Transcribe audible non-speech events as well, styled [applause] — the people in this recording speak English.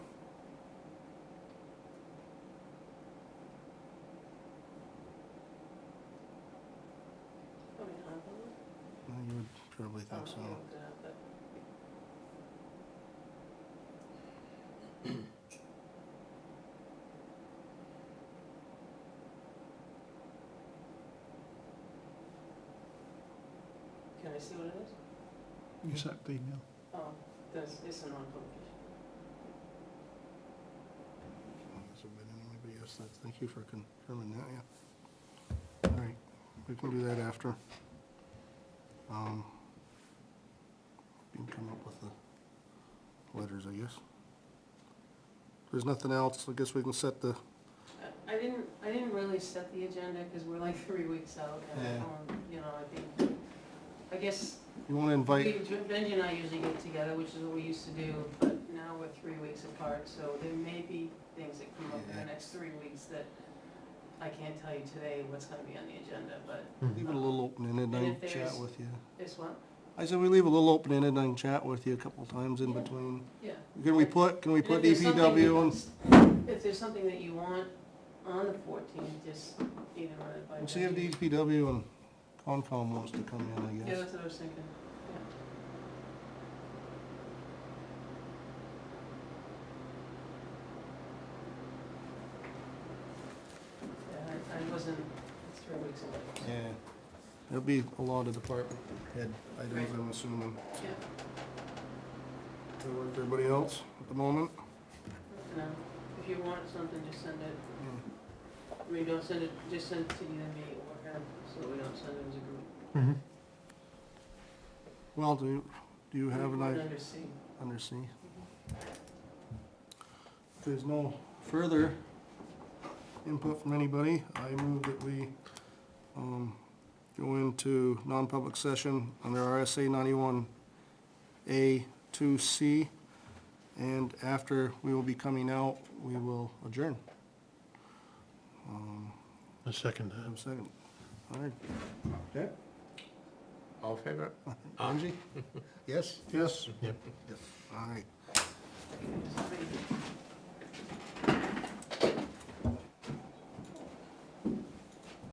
Preferably think so. [coughs] Can I see what it is? You sent the email. Oh, that's, it's a non-public. So we didn't wanna be- yes, that's- Thank you for confirming that, yeah. All right, we can do that after. Um, We can come up with the letters, I guess. If there's nothing else, I guess we can set the, I- I didn't, I didn't really set the agenda because we're like [laughs] three weeks out and, Yeah. um, you know, I think, I guess, you wanna we, invite, Benji and I usually get together, which is what we used to do, but now we're three weeks apart, so there may be things that come up in the Yeah. next three weeks that I can't tell you today what's gonna be on the agenda, but leave it a little open-ended, I And if can chat there's- with you. this one, I said we leave a little open-ended, I can chat with you a couple times in Yeah. between. yeah. Can we put, can we And if put E there's something you- DPW and If there's something that you want on the fourteenth, just either run it by. And see if Benji. DPW and Concom wants to come in, I Yeah, guess. that's what I was thinking. Yeah, I- I wasn't, it's three weeks away. Yeah. There'll be a lot of department head items, I'm assuming. Yeah, Does that work for Everybody else at the moment? no, if you want something, just send it, Yeah. I mean, don't send it, just send it to either me or him, so we don't send it as a group. Well, do, you- do you have an We're idea, Under C. under C? If there's no further input from anybody, I move that we, um, go into non-public session under RSA ninety-one A two C. And after we will be coming out, we will adjourn. Um, A second have a second. All right. All in favor? Angie? Yes? Yes. Yep. All right. Okay, just make it.